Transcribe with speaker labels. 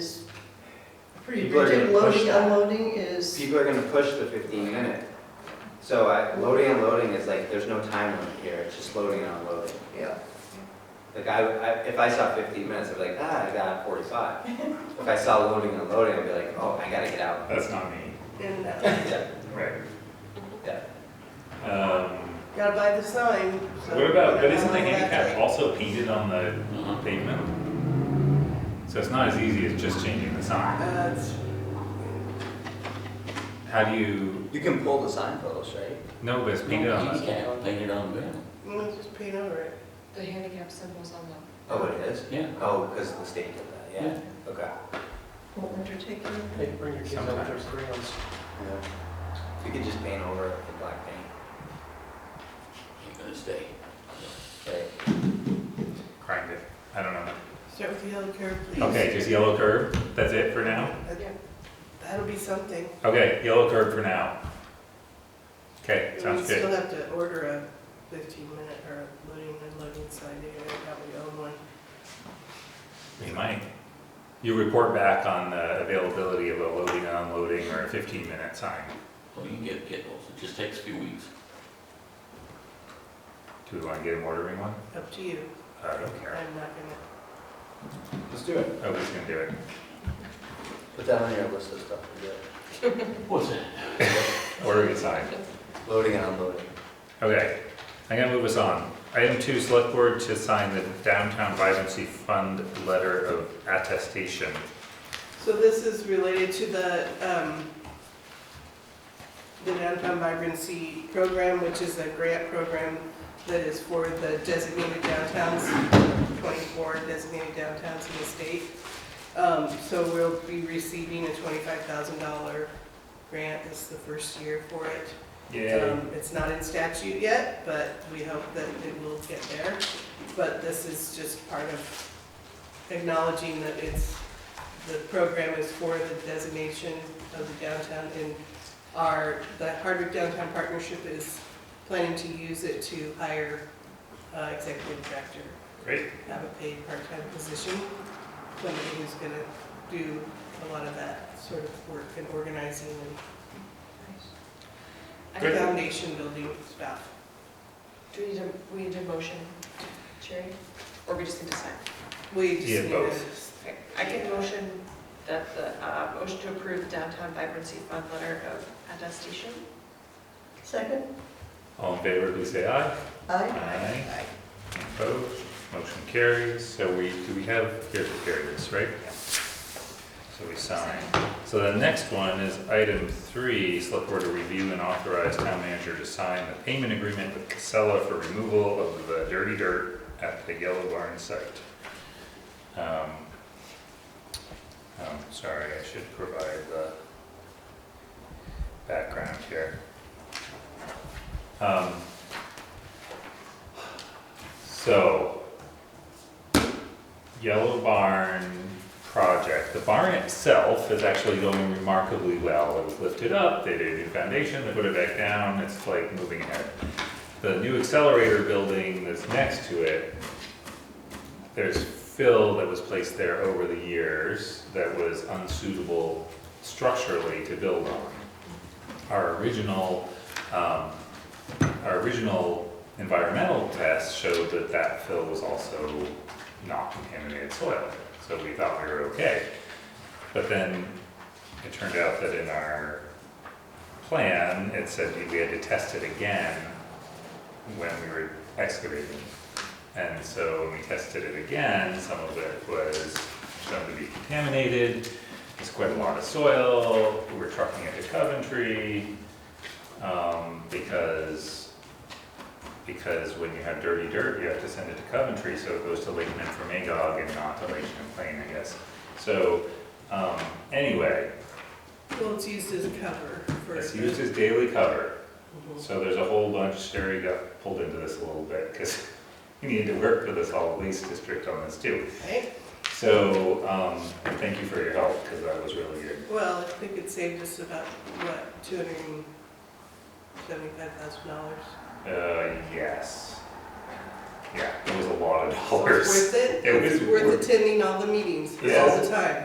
Speaker 1: Pretty
Speaker 2: People are
Speaker 1: rigid,
Speaker 2: gonna push
Speaker 1: loading,
Speaker 2: that.
Speaker 1: unloading is,
Speaker 2: People are gonna push the fifteen minute. So I, loading and loading is like, there's no time limit here, it's just loading and unloading.
Speaker 1: yeah,
Speaker 2: Like I, I, if I saw fifteen minutes, I'd be like, ah, I got forty-five. If I saw loading and unloading, I'd be like, oh, I gotta get out.
Speaker 3: That's not me.
Speaker 1: and uh,
Speaker 2: Yeah,
Speaker 3: Right.
Speaker 2: yeah.
Speaker 3: Um,
Speaker 1: gotta buy the sign. so-
Speaker 3: what about, but isn't the
Speaker 1: That's
Speaker 3: handicap
Speaker 1: right.
Speaker 3: also painted on the pavement? So it's not as easy as just changing the sign.
Speaker 1: Uh, it's-
Speaker 3: How do you,
Speaker 2: You can pull the sign photos, right?
Speaker 3: no, but it's painted on the,
Speaker 4: Handicap, painted on the ground.
Speaker 1: mm, Just paint over it.
Speaker 5: The handicap symbol's on the,
Speaker 2: Oh, it is?
Speaker 4: Yeah.
Speaker 2: Oh, because the state did that, yeah, okay.
Speaker 1: Won't undertake you.
Speaker 6: Hey, bring your kids out with their crayons.
Speaker 2: Yeah. You could just paint over it with black paint.
Speaker 4: Ain't gonna stay.
Speaker 2: Right.
Speaker 3: grind it, I don't know.
Speaker 1: Start with the yellow curve, please.
Speaker 3: Okay, just yellow curb, that's it for now?
Speaker 1: That- That'll be something.
Speaker 3: Okay, yellow curb for now. Okay,
Speaker 1: And We
Speaker 3: sounds
Speaker 1: still
Speaker 3: good.
Speaker 1: have to order a fifteen minute or a loading and unloading sign, maybe that we own one.
Speaker 3: We might. You report back on the availability of a loading and unloading or a fifteen minute sign.
Speaker 4: Well, you can get kibbles, it just takes a few weeks.
Speaker 3: Do we wanna get him ordering one?
Speaker 1: Up to you.
Speaker 3: I don't care.
Speaker 1: I'm not gonna,
Speaker 2: Let's do it.
Speaker 3: Nobody's gonna do it.
Speaker 2: Put that on your list of stuff to do.
Speaker 4: What's that?
Speaker 3: Order a sign.
Speaker 2: Loading and unloading.
Speaker 3: Okay, I'm gonna move us on. Item two, select board to sign the downtown vibrancy fund letter of attestation.
Speaker 1: so this is related to the, um, the downtown vibrancy program, which is a grant program that is for the designated downtowns, twenty-four designated downtowns in the state. Um, so we'll be receiving a twenty-five thousand dollar grant, this is the first year for it. Um, It's not in statute yet, but we hope that it will get there. But this is just part of acknowledging that it's, the program is for the designation of the downtown. And our, the Hardwick Downtown Partnership is planning to use it to hire uh, executive director,
Speaker 3: Great,
Speaker 1: have a paid part-time position, somebody who's going to do a lot of that sort of work and organizing and
Speaker 3: Great.
Speaker 1: foundation building stuff.
Speaker 5: do we need a, we need a motion, Sherry? Or we just need to sign?
Speaker 1: We just
Speaker 3: Yeah,
Speaker 1: need to,
Speaker 3: both.
Speaker 5: Okay, I can motion that the, uh, motion to approve downtown vibrancy fund letter of attestation.
Speaker 1: Second?
Speaker 3: all in favor, please say aye.
Speaker 1: Aye.
Speaker 3: Aye. Opposed, motion carries, so we, do we have, here to carry this, right? So we sign. So the next one is item three, select board to review and authorize town manager to sign the payment agreement with Casella for removal of the dirty dirt at the Yellow Barn site. Um, I'm sorry, I should provide the background here. Um, so, Yellow Barn project, the barn itself is actually going remarkably well. It was lifted up, they did a new foundation, they put it back down, it's like moving ahead. The new accelerator building that's next to it, there's fill that was placed there over the years that was unsuitable structurally to build on. Our original, um, our original environmental test showed that that fill was also not contaminated soil, so we thought we were okay. But then it turned out that in our plan, it said we had to test it again when we were excavating. And so when we tested it again, some of it was shown to be contaminated, it's quite a lot of soil, we were trucking it to Coventry, um, because, because when you have dirty dirt, you have to send it to Coventry, so it goes to Lake Memphremagog and not to Lake Champlain, I guess. So, um, anyway,
Speaker 1: Well, it's used as a cover for.
Speaker 3: it's used as daily cover,
Speaker 1: Mhm.
Speaker 3: so there's a whole bunch, Sherry got pulled into this a little bit, because we needed to work for the solid waste district on this too.
Speaker 1: Right?
Speaker 3: So, um, thank you for your help, because that was really good.
Speaker 1: Well, I think it saved us about, what, two hundred and seventy-five thousand dollars?
Speaker 3: Uh, yes. Yeah, it was a lot of
Speaker 1: So
Speaker 3: dollars.
Speaker 1: it's worth it?
Speaker 3: It was
Speaker 1: It's worth attending all the meetings, all
Speaker 3: Yes.
Speaker 1: the time.